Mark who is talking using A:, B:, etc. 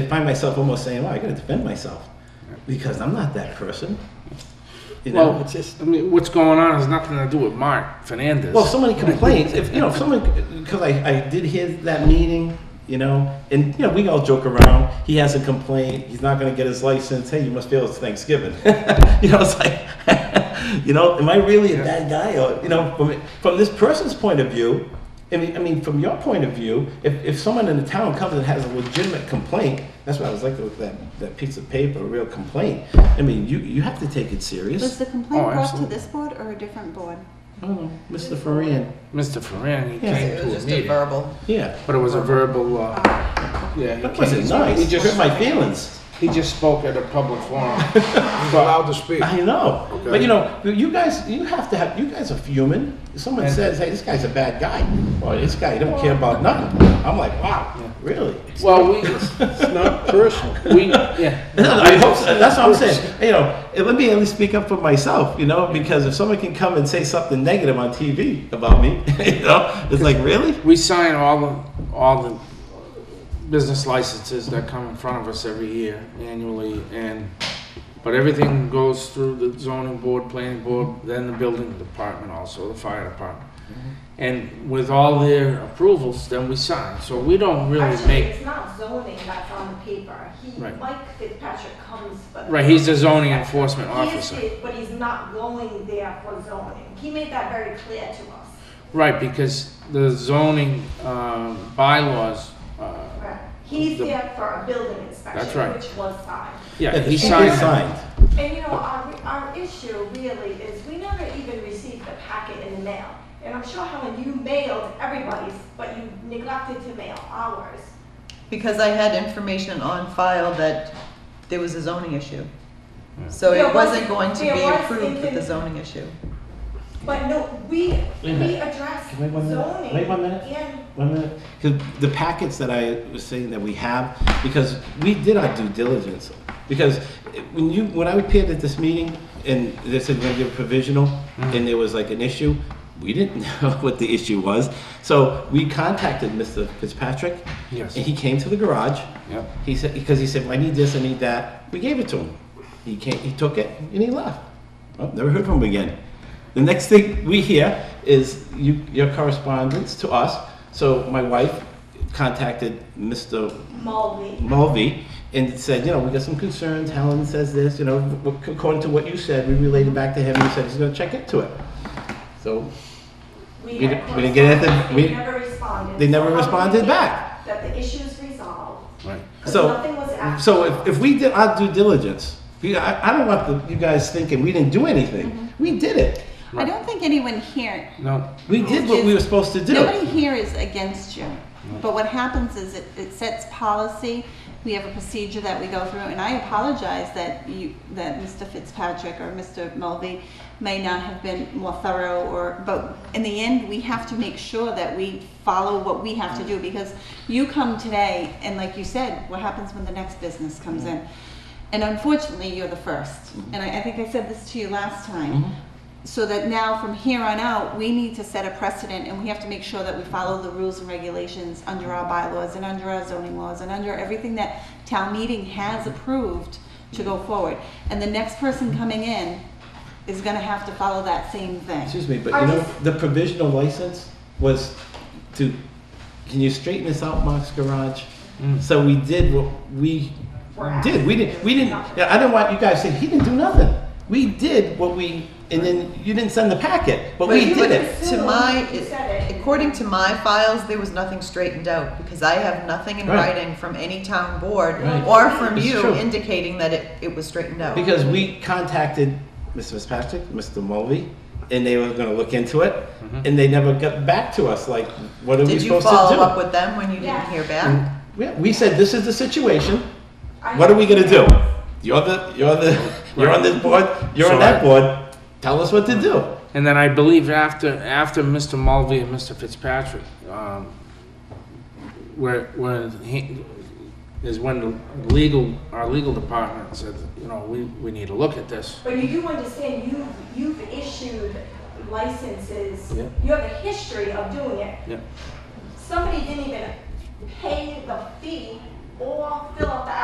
A: I find myself almost saying, "Well, I got to defend myself because I'm not that person." You know,
B: Well,
A: it's just
B: I mean, what's going on has nothing to do with Mark Fernandez.
A: well, if somebody complains, if you know, if someone because I, I did hear that meeting, you know, and you know, we all joke around. He has a complaint. He's not going to get his license. Hey, you must feel it's Thanksgiving. you know, it's like, you know, am I really a bad guy? Or you know, from from this person's point of view, I mean, I mean, from your point of view, if, if someone in the town comes and has a legitimate complaint, that's why I was like with that, that piece of paper, a real complaint. I mean, you you have to take it serious.
C: Was the
B: Oh,
C: complaint brought to
B: absolutely.
C: this board or a different board?
A: I don't know, Mr. Ferran.
B: Mr. Ferran, he
A: Yeah.
B: came
D: It was
B: to a
D: just a
B: meeting,
D: verbal.
A: Yeah.
B: but it was a verbal. Uh, yeah, he
A: That wasn't nice.
B: He
A: It hurt
B: just
A: my feelings.
B: he just spoke at a public forum.
E: He's allowed to speak.
A: I know.
E: Okay.
A: But you know, you guys, you have to have, you guys are human. If Someone
B: And-
A: says, hey, this guy's a bad guy, or this guy don't care about nothing. I'm like, wow, really?
B: well, we
E: It's not personal.
B: we yeah.
A: I hope so. That's what I'm saying. You know, and let me at least speak up for myself, you know, because if someone can come and say something negative on TV about me, you know, it's like, really?
B: We sign all the, all the business licenses that come in front of us every year, annually, and, but everything goes through the zoning board, planning board, then the building department also, the fire department. And with all their approvals, then we sign, so we don't really
F: Actually,
B: make,
F: it's not zoning that's on the paper. He,
B: Right.
F: Mike Fitzpatrick comes for.
B: right, he's a zoning enforcement
F: He is,
B: officer.
F: but he's not going there for zoning. He made that very clear to us.
B: Right, because the zoning, uh, bylaws, uh,
F: Right. He's
B: The-
F: there for a building inspection.
B: That's right.
F: Which was signed.
B: yeah,
A: If
B: he
A: it's
B: signed. them.
A: signed.
F: And you know, our, our issue really is we never even received the packet in the mail. And I'm sure Helen, you mailed everybody's, but you neglected to mail ours.
D: Because I had information on file that there was a zoning issue. So
F: There
D: it
F: was-
D: wasn't going to
F: there
D: be
F: was
D: approved with the
F: thinking-
D: zoning issue.
F: But no, we,
A: Wait a
F: we
A: minute.
F: addressed
A: Wait one
F: zoning
A: minute. Wait one minute.
F: and
A: One minute. 'Cause the packets that I was saying that we have, because we did our due diligence. Because when you, when I appeared at this meeting and they said we're gonna give provisional and there was like an issue, we didn't know what the issue was. So we contacted Mr. Fitzpatrick.
B: Yes.
A: And he came to the garage.
B: Yep.
A: He said, because he said, "Well, I need this, I need that. We gave it to him. He came, he took it and he left. Well, never heard from him again. The next thing we hear is you, your correspondence to us. So my wife contacted Mr.
F: Mulvey.
A: Mulvey and said, you know, we got some concerns. Helen says this, you know, w- w- according to what you said, we relayed it back to him and he said he's going to check into it. So We
F: had
A: didn't- we didn't get anything-
F: correspondence,
A: we-
F: They never responded.
A: they never
F: So how do we
A: responded
F: know
A: back.
F: That the issue is resolved.
B: Right.
F: 'Cause
A: So-
F: Nothing was acted
A: So
F: on.
A: if, if we did our due diligence, we, I, I don't want the, you guys thinking we didn't do anything. We did it.
B: Right.
C: I don't think anyone here,
B: No,
A: We did what we were supposed to do.
C: nobody here is against you. But what happens is it, it sets policy, we have a procedure that we go through, and I apologize that you, that Mr. Fitzpatrick or Mr. Mulvey may not have been more thorough or, but in the end, we have to make sure that we follow what we have to do because you come today, and like you said, what happens when the next business comes in? And unfortunately, you're the first.
A: Mm-hmm.
C: And I, I think I said this to you last time. So that now, from here on out, we need to set a precedent and we have to make sure that we follow the rules and regulations under our bylaws and under our zoning laws and under everything that town meeting has approved to go forward. And the next person coming in is gonna have to follow that same thing.
A: Excuse me, but
F: Are
A: you know,
F: you-
A: the provisional license was to, can you straighten this out, Mark's Garage? So we did what we did. We didn't, we didn't, yeah, I didn't want you guys to say, he didn't do nothing. We did what we, and then you didn't send the packet, but we
D: But
A: did it.
D: To my,
F: You said it.
D: according to my files, there was nothing straightened out because I have nothing in
A: Right.
D: writing from any town board
A: Right.
D: or from
A: It's
D: you
A: true.
D: indicating that it, it was straightened out.
A: Because we contacted Mr. Fitzpatrick, Mr. Mulvey, and they were gonna look into it, and they never got back to us, like, what are we
D: Did you
A: supposed to do? Mm.
D: follow up with them when you didn't
F: Yeah.
D: hear back?
A: Yeah, we said, this is the situation,
F: I-
A: What are we gonna do? You're the, you're the, you're on this board, you're on that board, tell us what to do.
B: And then I believe after, after Mr. Mulvey and Mr. Fitzpatrick, um, where, where he, is when the legal, our legal department said, you know, we, we need to look at this.
F: But you do understand, you, you've issued licenses,
B: Yeah.
F: you have a history of doing it.
B: Yeah.
F: Somebody didn't even pay the fee or fill out the